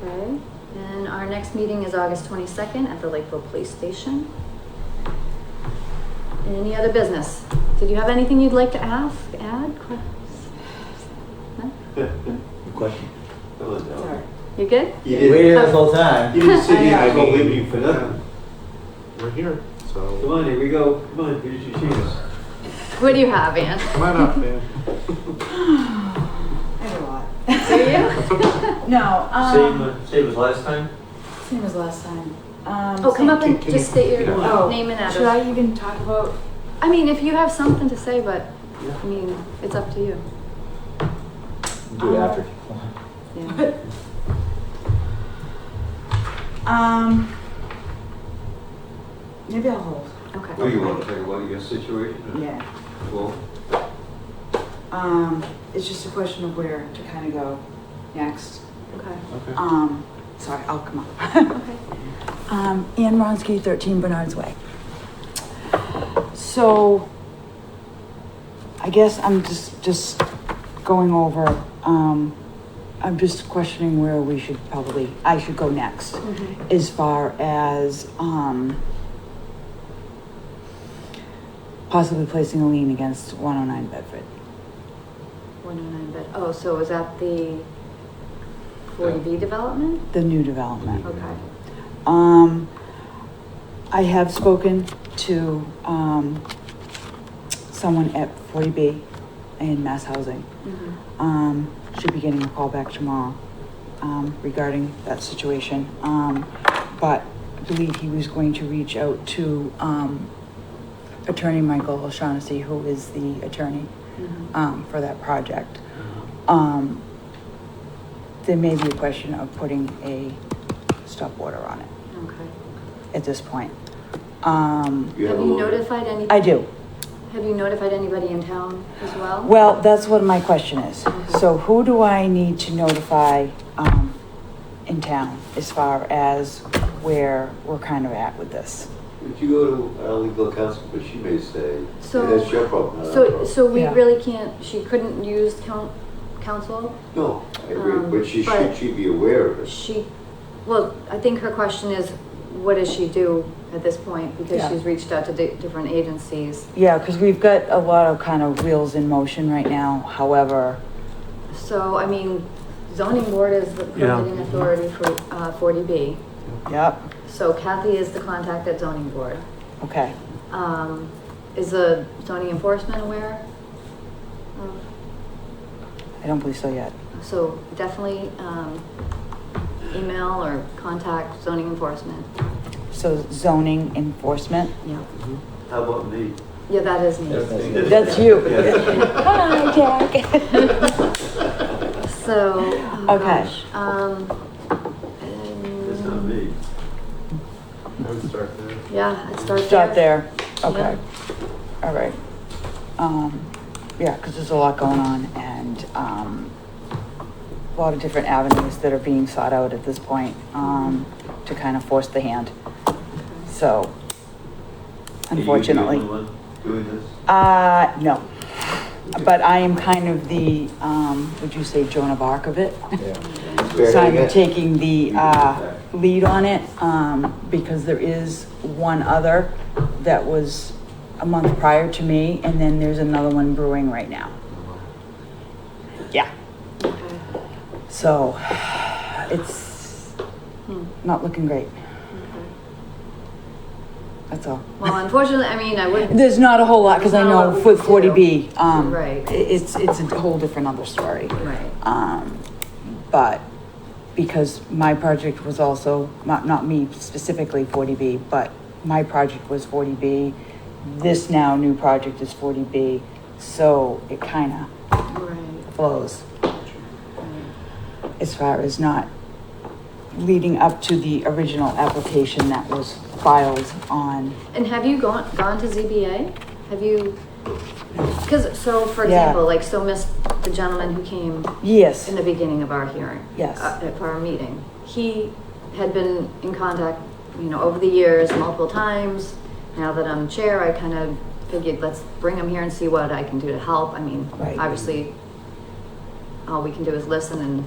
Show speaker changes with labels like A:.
A: Okay, and our next meeting is August twenty-second at the Lakeville Police Station. Any other business? Did you have anything you'd like to ask, add? que- No?
B: Question.
A: Sorry. You good?
B: You
C: You
B: did. We're
C: did.
B: here this whole time.
C: You didn't sit here.
D: I
C: go
D: know.
C: leave you for nothing.
D: We're here,
C: Come
D: so
C: on, here we go. Come on, here's your shoes.
A: What do you have, Ann?
D: come on up, man.
E: I have a lot.
A: Do you?
E: No,
C: Same,
E: um,
C: uh, same as last time?
E: same as last time. Um,
A: Oh, come up and
D: Can- can
A: just
D: you-
A: state your
D: yeah.
E: Oh,
A: name and
E: Should
A: address.
E: I even talk about?
A: I mean, if you have something to say, but,
C: Yeah.
A: I mean, it's up to you.
B: Do it
E: Um,
B: after. if you want.
A: Yeah.
E: Um, maybe I'll hold.
C: Oh,
A: Okay.
C: you want to talk about your situation?
E: Yeah.
C: Well,
E: Um, it's just a question of where to kind of go next.
A: Okay.
D: Okay.
E: Um, sorry, I'll come up.
A: Okay.
E: Um, Ann Ronsky, 13 Bernard's Way. So, I guess I'm just, just going over, um, I'm just questioning where we should probably, I should go next.
A: Mhm.
E: As far as, um, possibly placing a lien against 109 Bedford.
A: One oh nine bed. Oh, so was that the forty B development?
E: the new development.
A: Okay.
E: Um, I have spoken to, um, someone at forty B in Mass Housing.
A: Mhm.
E: Um, should be getting a call back tomorrow, um, regarding that situation. Um, but I believe he was going to reach out to, um, Attorney Michael O'Shaughnessy, who is the attorney,
A: Mhm.
E: um, for that project. Um, there may be a question of putting a stop order on it
A: Okay.
E: at this point. Um,
C: you have
A: Have
C: a
A: you
C: lawyer?
A: notified any?
E: I do.
A: Have you notified anybody in town as well?
E: Well, that's what my question is. So who do I need to notify, um, in town as far as where we're kind of at with this?
C: If you go to our legal counsel, but she may say,
A: So-
C: that's your problem, not our
A: So,
C: problem.
A: so we
E: Yeah.
A: really can't, she couldn't use coun- council?
C: No, I
A: um,
C: agree, but she
A: but-
C: should, she be aware of it.
A: She, well, I think her question is, what does she do at this point? Because
E: Yeah.
A: she's reached out to di- different agencies.
E: Yeah, because we've got a lot of kind of wheels in motion right now. However,
A: So, I mean, zoning board is the
D: Yeah.
A: permitting authority for, uh, forty B.
E: yep,
A: So Kathy is the contact at zoning board.
E: okay.
A: Um, is the zoning enforcement aware?
C: Mm.
A: of-
E: I don't believe so yet.
A: So definitely, um, email or contact zoning enforcement.
E: So zoning enforcement?
A: Yeah,
C: How about me?
A: yeah, that is me.
B: That's-
E: That's you.
C: Yeah.
E: Hi, Jack.
A: So. oh
E: Okay.
A: gosh, Um.
C: That's
A: and-
C: not me.
D: I would start there.
A: Yeah, I'd start there.
E: Start there, okay, all right. Um, yeah, because there's a lot going on and, um, a lot of different avenues that are being sought out at this point, um, to kind of force the hand, so,
C: Are you the only
E: unfortunately.
C: one Doing this?
E: Uh, no, but I am kind of the, um, would you say Joan of Arc of it?
B: Yeah.
E: So
C: Spearheading
E: I'm
C: it?
E: taking the,
C: You
E: uh,
C: can do
E: lead on it, um, because there is one other that was a month prior to me, and then there's another one brewing right now. Yeah,
A: Okay.
E: so it's
A: Hmm,
E: not looking great,
A: okay.
E: that's all.
A: Well, unfortunately, I mean, I wouldn't,
E: There's not a whole lot, because I
A: There's not a
E: know
A: lot we
E: with
A: can do.
E: forty B, um,
A: Right.
E: i- it's, it's a whole different other story.
A: right,
E: Um, but because my project was also, not, not me specifically 40B, but my project was 40B, this now new project is 40B, so it kind
A: right,
E: of flows
A: right.
E: as far as not leading up to the original application that was filed on,
A: And have you gone, gone to ZBA? Have you? Because, so for
E: Yeah.
A: example, like, so Miss, the gentleman who came
E: yes,
A: in the beginning of our hearing.
E: Yes.
A: uh, At our meeting. He had been in contact, you know, over the years, multiple times. Now that I'm chair, I kind of figured, let's bring him here and see what I can do to help. I mean,
E: Right.
A: obviously, all we can do is listen and